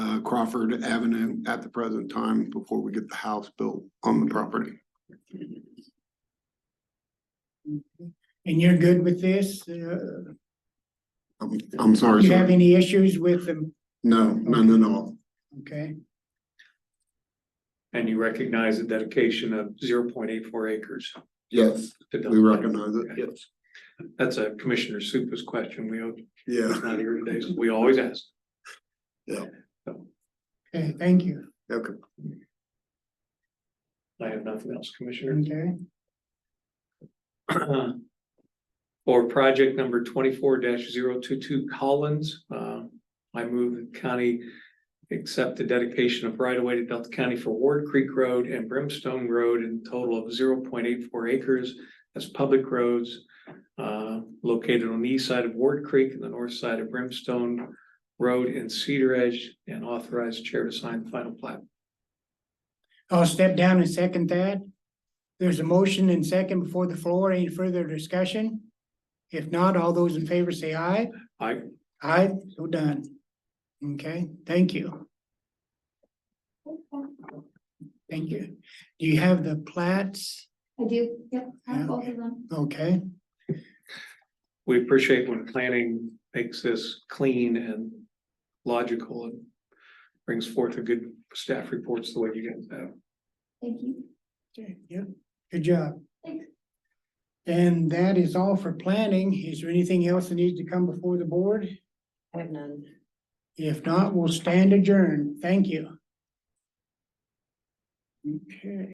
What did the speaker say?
uh, Crawford Avenue at the present time before we get the house built on the property. And you're good with this? Uh, I'm, I'm sorry, you have sir. any issues with them? No, none at all. Okay, And you recognize the dedication of zero point eight four acres. Yes, to we Dunn. recognize it. Yes. That's a Commissioner Supas question. We, owe- Yeah, he's not here today, so we always ask. Yeah. So okay, thank you. okay. I have nothing else, Commissioner. Okay, Uh, For project number twenty-four 22 Collins, uh, I move the county accept the dedication of right-of-way to Delta County for Ward Creek Road and Brimstone Road in total of zero point eight four acres as public roads uh, located on the east side of Ward Creek and the north side of Brimstone Road in Cedar Edge and authorize chair to sign the final plat. I'll step down and second that. There's a motion and second before the floor. Any further discussion? If not, all those in favor say aye. Aye. Aye, so done. Okay, thank you. Thank you. Do you have the plats? I do, yep, I have both of them. Okay, We appreciate when planning makes this clean and logical and brings forth a good staff reports the way you guys have. Thank you. Okay. Yep. good job. Thanks. And that is all for planning. Is there anything else that needs to come before the board? I have none. If not, we'll stand adjourned. Thank you. Okay.